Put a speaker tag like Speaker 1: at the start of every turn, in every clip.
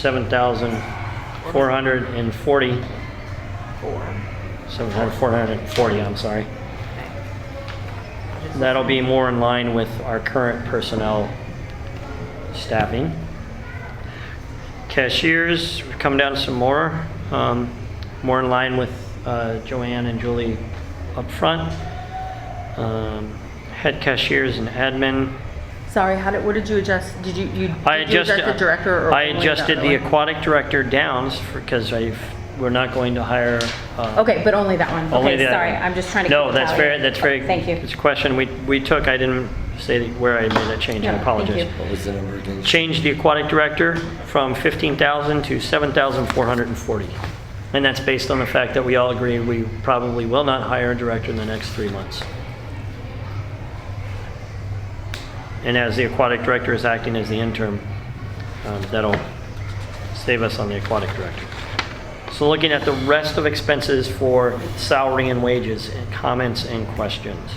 Speaker 1: seven thousand four hundred and forty,
Speaker 2: Four.
Speaker 1: seven thousand four hundred and forty, I'm sorry.
Speaker 2: Just-
Speaker 1: That'll be more in line with our current personnel staffing. Cashiers, we've come down some more, um, more in line with, uh, Joanne and Julie up front. Um, head cashiers and admin.
Speaker 2: Sorry, how did, what did you adjust? Did you, you,
Speaker 1: I
Speaker 2: did you
Speaker 1: adjusted. uh,
Speaker 2: adjust the director or?
Speaker 1: I
Speaker 2: only
Speaker 1: adjusted
Speaker 2: other
Speaker 1: the
Speaker 2: one?
Speaker 1: aquatic director downs because I've, we're not going to hire, uh,
Speaker 2: Okay, but only that one.
Speaker 1: Only
Speaker 2: Okay,
Speaker 1: that-
Speaker 2: sorry, I'm just trying to.
Speaker 1: No,
Speaker 2: keep
Speaker 1: that's
Speaker 2: tally.
Speaker 1: very, that's very.
Speaker 2: Thank you.
Speaker 1: It's a question we, we took, I didn't say that- where I made that change, I
Speaker 2: No, thank
Speaker 1: apologize.
Speaker 2: you.
Speaker 3: What was the number again?
Speaker 1: Changed the aquatic director from 15,000 to 7,440. And that's based on the fact that we all agree we probably will not hire a director in the next three months. And as the aquatic director is acting as the interim, um, that'll save us on the aquatic director. So looking at the rest of expenses for salary and wages, and comments and questions.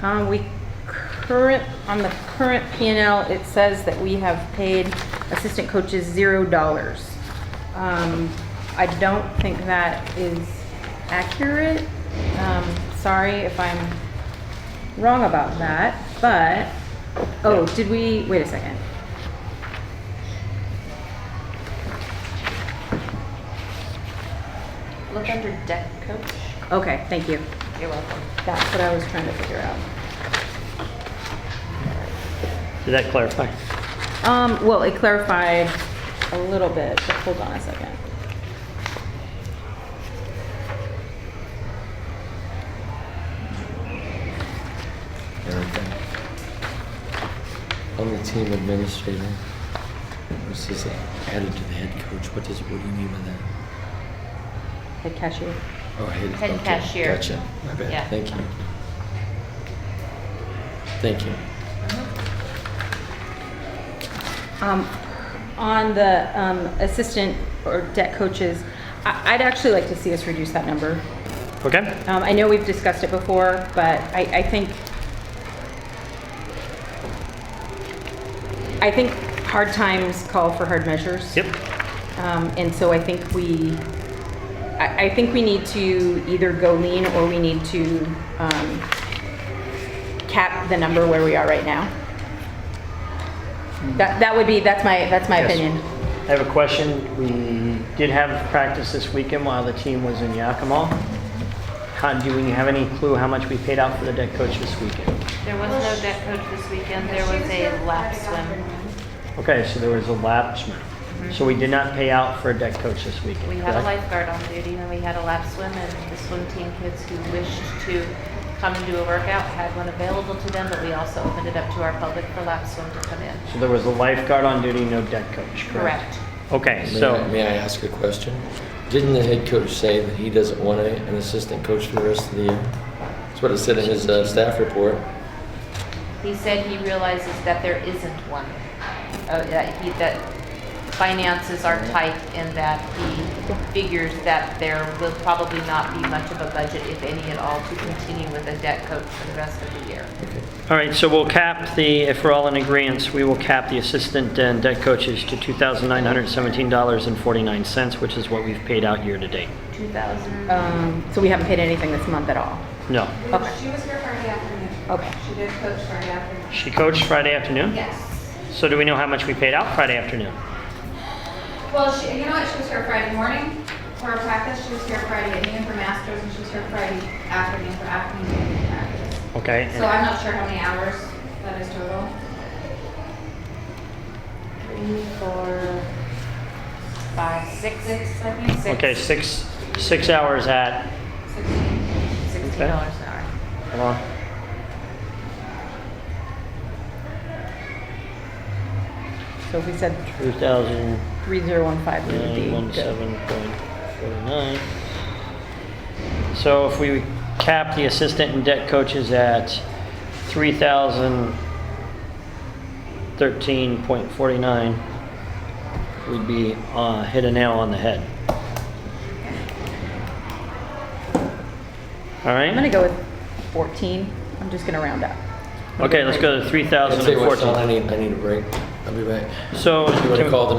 Speaker 2: Um, we current, on the current P and L, it says that we have paid assistant coaches zero dollars. Um, I don't think that is accurate. Um, sorry if I'm wrong about that, but, oh, did we, wait a second.
Speaker 4: Look under deck coach.
Speaker 2: Okay, thank you.
Speaker 4: You're welcome.
Speaker 2: That's what I was trying to figure out.
Speaker 1: Did that clarify?
Speaker 2: Um, well, it clarified a little bit, but hold on a second.
Speaker 3: Everything. On the team administrator, this is added to the head coach. What does, what do you mean by that?
Speaker 2: Head cashier.
Speaker 3: Oh, head.
Speaker 4: Head
Speaker 3: okay,
Speaker 4: cashier.
Speaker 3: Gotcha. My
Speaker 4: Yeah.
Speaker 3: bad. Thank you. Thank you.
Speaker 2: Um, on the, um, assistant or debt coaches, I, I'd actually like to see us reduce that number.
Speaker 1: Okay?
Speaker 2: Um, I know we've discussed it before, but I, I think, I think hard times call for hard measures.
Speaker 1: Yep.
Speaker 2: Um, and so I think we, I, I think we need to either go lean or we need to, um, cap the number where we are right now. That, that would be, that's my, that's my
Speaker 1: Yes.
Speaker 2: opinion.
Speaker 1: I have a question. We did have practice this weekend while the team was in Yakima. How, do we have any clue how much we paid out for the deck coach this weekend?
Speaker 4: There was no deck coach this weekend. There was a lap swim.
Speaker 1: Okay, so there was a lapse. So we did not pay out for a deck coach this weekend.
Speaker 4: Mm-hmm. We had a
Speaker 1: correct?
Speaker 4: lifeguard on duty and we had a lap swim and the swim team kids who wished to come and do a workout had one available to them, but we also opened it up to our public for lap swim to come in.
Speaker 1: So there was a lifeguard on duty, no deck coach, correct?
Speaker 4: Correct.
Speaker 1: Okay,
Speaker 3: May I,
Speaker 1: so,
Speaker 3: may I ask a question? Didn't the head coach say that he doesn't want a- an assistant coach for the rest of the year? That's what it said in his uh, staff report.
Speaker 4: He said he realizes that there isn't one. Oh, that he, that finances are tight and that he figures that there will probably not be much of a budget, if any at all, to continue with a debt coach for the rest of the year.
Speaker 3: Okay.
Speaker 1: all right, so we'll cap the, if we're all in agreement, we will cap the assistant and deck coaches to $2,917.49, which is what we've paid out year to date.
Speaker 4: Two thousand.
Speaker 2: Um, so we haven't paid anything this month at all.
Speaker 1: No.
Speaker 2: Okay.
Speaker 5: She was here Friday afternoon.
Speaker 2: Okay.
Speaker 5: She did coach Friday afternoon.
Speaker 1: She coached Friday afternoon?
Speaker 5: Yes.
Speaker 1: So do we know how much we paid out Friday afternoon?
Speaker 5: Well, she, you know what, she was here Friday morning for her practice, she was here Friday at noon for masters, and she was here Friday afternoon for afternoon and practice.
Speaker 1: Okay.
Speaker 5: So I'm not sure how many hours that is total.
Speaker 4: Three, four, five, six,
Speaker 5: Six, I think, six,
Speaker 1: Okay, six, six hours at,
Speaker 5: sixteen.
Speaker 4: sixteen dollars an hour.
Speaker 1: hold on.
Speaker 2: So if we said
Speaker 1: 2,000,
Speaker 2: three zero one five, we would be good.
Speaker 1: 1,749. So if we cap the assistant and debt coaches at 3,013.49, we'd be, uh, hit a nail on the head. All right?
Speaker 2: I'm gonna go with fourteen. I'm just gonna round up.
Speaker 1: Okay, let's go to
Speaker 3: I'll tell you
Speaker 1: 3,014.
Speaker 3: what, Sean, I need, I need a break. I'll be back.
Speaker 1: So.
Speaker 3: You want
Speaker 1: can-
Speaker 3: to call the